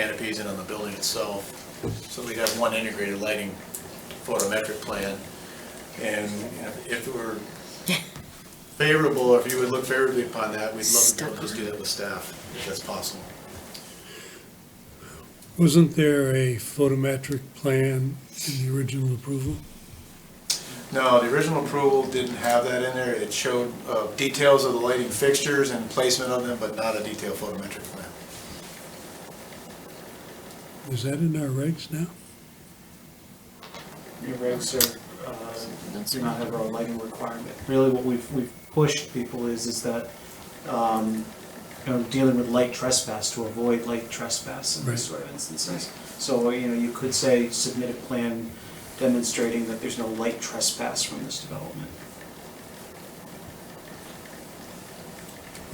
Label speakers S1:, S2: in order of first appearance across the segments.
S1: canopies and on the building itself. So we got one integrated lighting photometric plan. And you know, if it were favorable, if you would look favorably upon that, we'd love to just do that with staff, if that's possible.
S2: Wasn't there a photometric plan in the original approval?
S1: No, the original approval didn't have that in there. It showed uh, details of the lighting fixtures and placement of them, but not a detailed photometric plan.
S2: Is that in our regs now?
S3: Your regs are, uh, do not have a lighting requirement. Really, what we've, we've pushed people is, is that, um, you know, dealing with light trespass, to avoid light trespass in these
S2: Right.
S3: sort of instances. So, you know, you could say submit a plan demonstrating that there's no light trespass from this development.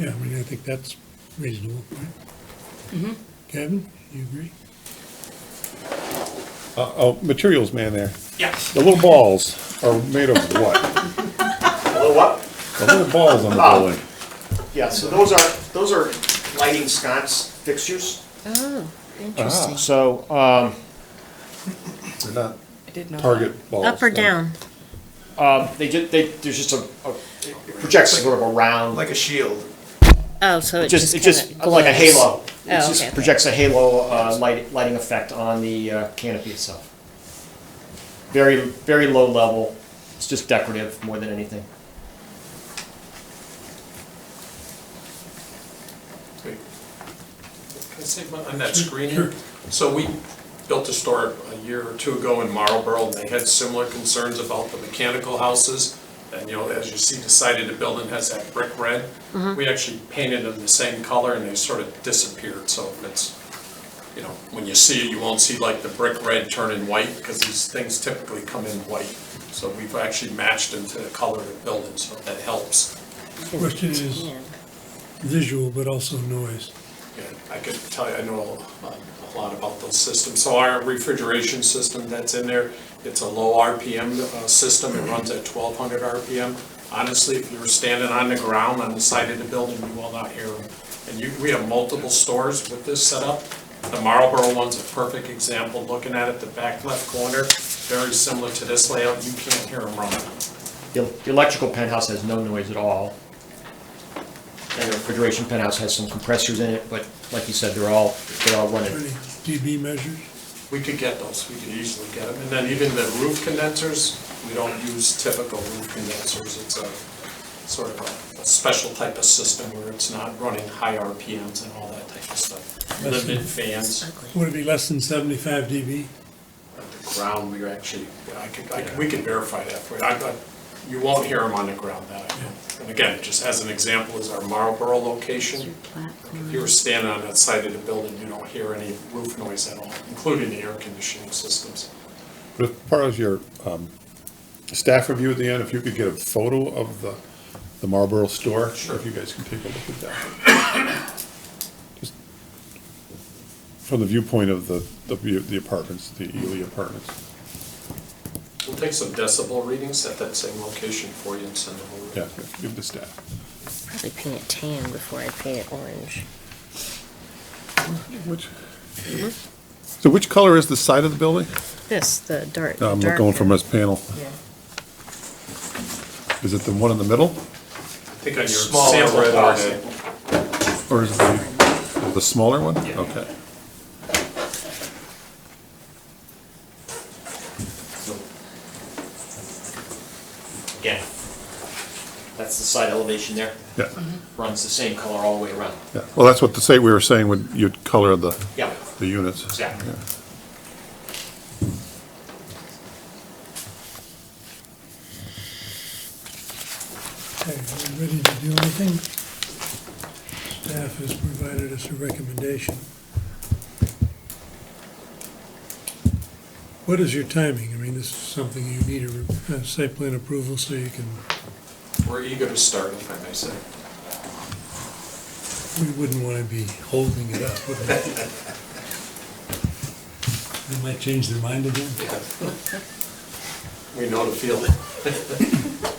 S2: Yeah, I mean, I think that's reasonable, right? Kevin, you agree?
S4: Uh-oh, Uh, oh, materials man there.
S3: Yes.
S4: The little balls are made of what?
S5: Blow up?
S4: The little balls on the building.
S5: Yeah, so those are, those are lighting sconce fixtures.
S6: Oh, interesting.
S5: So, um,
S4: They're not
S5: Ah.
S6: I did not.
S4: target balls.
S6: Up or
S4: they're-
S6: down?
S5: um, they just, they, there's just a, a- it projects sort of a round,
S1: Like a shield.
S6: Oh, so it just
S5: just, it
S6: kind of.
S5: just, like a halo. It
S6: Oh, okay,
S5: just
S6: okay.
S5: projects a halo, uh, light, lighting effect on the uh, canopy itself. Very, very low level, it's just decorative more than anything.
S7: Can I say one on that screening? So we built a store a year or two ago in Marlboro, and they had similar concerns about the mechanical houses. And, you know, as you see, decided the building has that brick red. We actually painted them the same color, and they sort of disappeared, so it's, you know, when you see it, you won't see like the brick red turning white, because these things typically come in white. So we've actually matched them to the color of the building, so that helps.
S2: Question is visual, but also noise.
S7: Yeah, I could tell you, I know um, a lot about those systems. So our refrigeration system that's in there, it's a low RPM uh, system, it runs at 1200 RPM. Honestly, if you were standing on the ground on the side of the building, you will not hear them. And you, we have multiple stores with this setup. The Marlboro one's a perfect example, looking at it, the back left corner, very similar to this layout, you can't hear them running.
S5: The the electrical penthouse has no noise at all. And the refrigeration penthouse has some compressors in it, but like you said, they're all, they all run
S2: Are
S5: running.
S2: they dB measures?
S7: We could get those, we could easily get them. And then even the roof condensers, we don't use typical roof condensers. It's a sort of a- a special type of system where it's not running high RPMs and all that type of stuff. Limited fans,
S2: Would it be less than seventy-five dB?
S7: on the ground, we actually, I could, I could- we could verify that for you. I- I- You won't hear them on the ground, that I know. And again, just as an example is our Marlboro location. If you were standing on that side of the building, you don't hear any roof noise at all, including the air conditioning systems.
S4: But as far as your um, staff review at the end, if you could get a photo of the the Marlboro store?
S7: Sure.
S4: If you guys can take a look at that. Just From the viewpoint of the the view- the apartments, the Ely apartments.
S7: We'll take some decibel readings at that same location for you and send them over.
S4: Yeah, give the staff.
S6: Probably paint it tan before I paint it orange.
S4: Which?
S6: Mm-hmm.
S4: So which color is the side of the building?
S6: This, the dark.
S4: No, I'm
S6: dark
S4: going from
S6: one.
S4: this panel.
S6: Yeah.
S4: Is it the one in the middle,
S7: I think on your
S1: Smaller
S7: sample
S1: red
S7: box,
S1: area.
S4: or is it the, the smaller one?
S7: Yeah.
S4: Okay.
S5: Again, that's the side elevation there,
S4: Yeah,
S5: runs the same color all the way around.
S4: yeah. Well, that's what the say, we were saying, when you'd color the,
S5: Yeah,
S4: the units.
S5: Exactly.
S4: Yeah.
S2: Okay, are we ready to do anything? Staff has provided us a recommendation. What is your timing? I mean, this is something you need a re- a site plan approval so you can,
S7: We're eager to start, if I may say.
S2: we wouldn't want to be holding it up, would we? They might change their mind again.
S7: We know the feeling.